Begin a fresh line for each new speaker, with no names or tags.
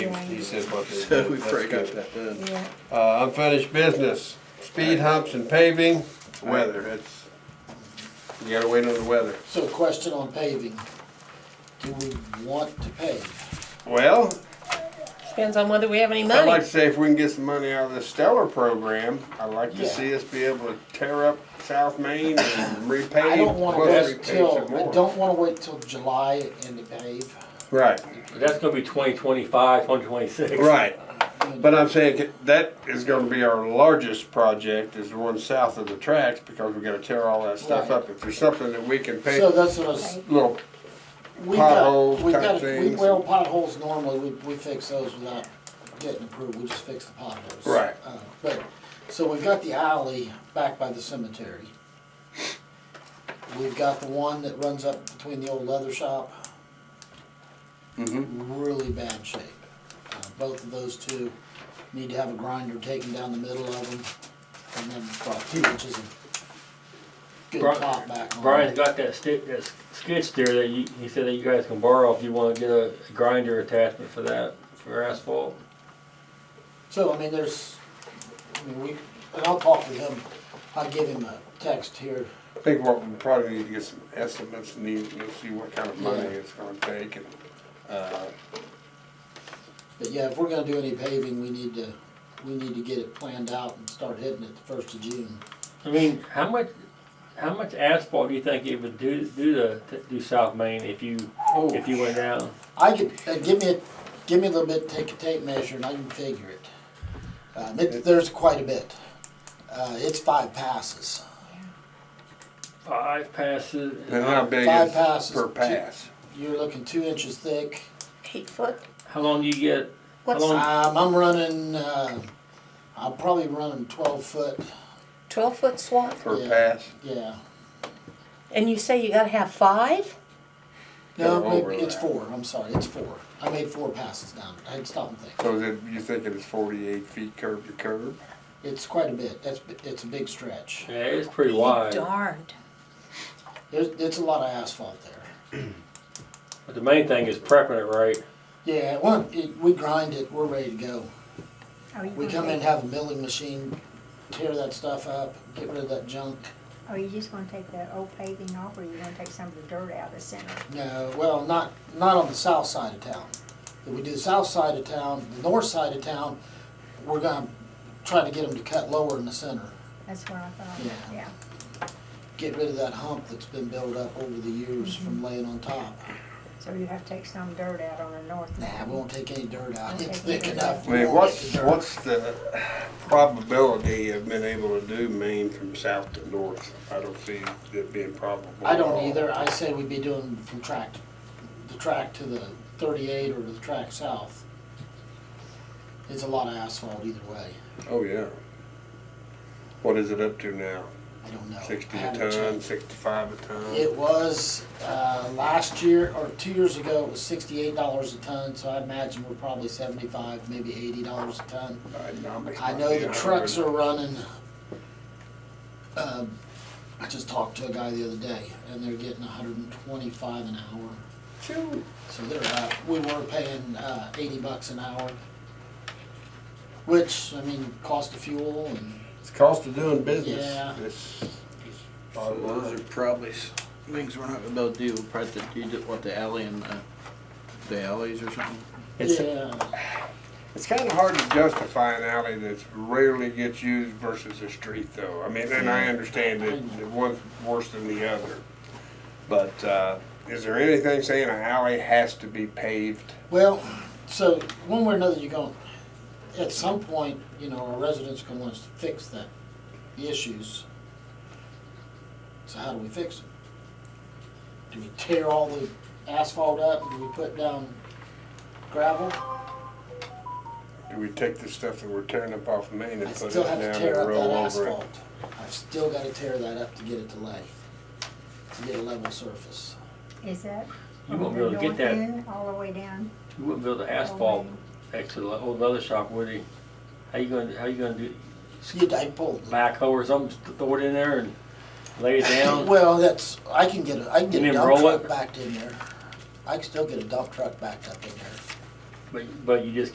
said what they
So
did.
we
That's
probably got
good.
that done.
Yeah,
Uh, unfinished business, speed humps and paving, weather, it's, you gotta wait on the weather.
So question on paving, do we want to pave?
Well,
depends on whether we have any
I'd like
money.
to say if we can get some money out of the Stellar program, I'd like to
Yeah.
see us be able to tear up South Main and repave.
I don't wanna
plus
wait
repave
till,
some more.
I don't wanna wait till July and to pave.
Right,
That's gonna be twenty twenty-five, twenty twenty-six.
right, but I'm saying that is gonna be our largest project, is the one south of the tracks, because we gotta tear all that stuff
Right.
up. If there's something that we can pave,
So that's what I was,
little,
we got,
Potholes
we
type
got, we,
things.
well, potholes normally, we, we fix those without getting approved, we just fix the potholes.
Right.
Uh, But, so we've got the alley back by the cemetery. We've got the one that runs up between the old leather shop.
Mm-hmm.
really bad shape. Uh, Both of those two need to have a grinder taken down the middle of them and then about two inches of good
Bri-
top back on
Brian's
it.
got that stick, that s- skid steer that you, he said that you guys can borrow if you wanna get a grinder attachment for that, for asphalt.
So, I mean, there's, I mean, we, and I'll talk to him. I'll give him a text here.
I think what we probably need to get some estimates, and need, and see what kind of money
Yeah.
it's gonna take, and, uh,
But yeah, if we're gonna do any paving, we need to, we need to get it planned out and start hitting it the first of June.
I mean, how much, how much asphalt do you think it would do, do the, to do South Main if you, if you went down?
I could, uh, give me, a give me a little bit, take a tape measure and I can figure it. Um, it, there's quite a bit. Uh, it's five passes.
Five passes.
and how big
Five
is
passes.
per pass?
You're looking two inches thick.
Eight foot,
How long do you get?
what's
long?
Um, I'm running, uh, I'm probably running twelve foot,
twelve foot swap?
Per
Yeah.
pass?
yeah.
And you say you gotta have five?
No,
They're
maybe it's
overlap.
four, I'm sorry, it's four. I made four passes down, I had to stop and think.
So then you think it's forty-eight feet curb to curb?
It's quite a bit, that's, it's a big stretch.
Yeah, it's pretty wide.
Darned.
There's, it's a lot of asphalt there.
But the main thing is prepping it right.
Yeah, well, it, we grind it, we're ready to go.
Are Oh, you
We
gonna
come in,
take-
have a milling machine, tear that stuff up, get rid of that junk.
Are oh, you just gonna take that old paving off, or you gonna take some of the dirt out of the center?
No, well, not, not on the south side of town. If we do the south side of town, the north side of town, we're gonna try to get them to cut lower in the center.
That's what I
Yeah.
thought, yeah.
Get rid of that hump that's been built up over the years from laying on top.
So you have to take some dirt out on the north
Nah, we
end.
won't take any dirt out,
Won't
it's
take any
thick
dirt
enough.
out.
I
We
mean,
won't get
what's,
the dirt.
what's the probability of being able to do Maine from south to north? I don't see it being probable.
I
at
don't
all.
either, I say we'd be doing from track, the track to the thirty-eight or to the track south. It's a lot of asphalt either way,
Oh, yeah. What is it up to now?
I don't know.
Sixty
I
a
haven't
ton,
checked.
sixty-five a ton?
It was, uh, last year, or two years ago, it was sixty-eight dollars a ton, so I imagine we're probably seventy-five, maybe eighty dollars a ton. I know the trucks are running, um, I just talked to a guy the other day, and they're getting hundred and twenty-five an hour. So they're up, we were paying, uh, eighty bucks an hour, which, I mean, cost of fuel and,
It's cost of doing business.
Yeah.
It's- it's
So
bottom
those are
line.
probably s- things we're not about to do, probably the- you did what the alley and the, the alleys or something.
It's-
yeah.
It's kind of hard to justify an alley that's rarely gets used versus a street, though. I mean, and I understand that that one's worse than the other. But uh, is there anything saying an alley has to be paved?
Well, so one way or another, you're going, at some point, you know, our residents are going to want us to fix that, the issues. So how do we fix them? Do we tear all the asphalt up? Do we put down gravel?
Do we take the stuff that we're tearing up off Main
I
and put it
still
down
have to
and
tear up that
roll over it?
asphalt. I've still got to tear that up to get it to lay, to get a level surface.
Is that?
You
from
won't be able to
the
get
north
that.
end All the way down?
You wouldn't build an asphalt next to the old leather shop, would you? How you gonna, how you gonna do,
See, I pulled.
backhoe or something, throw it in there and lay it down?
Well, that's, I can get a, I can get a
You mean
dump
roll
truck
it?
backed in there. I can still get a dump truck backed up in there.
But, but you just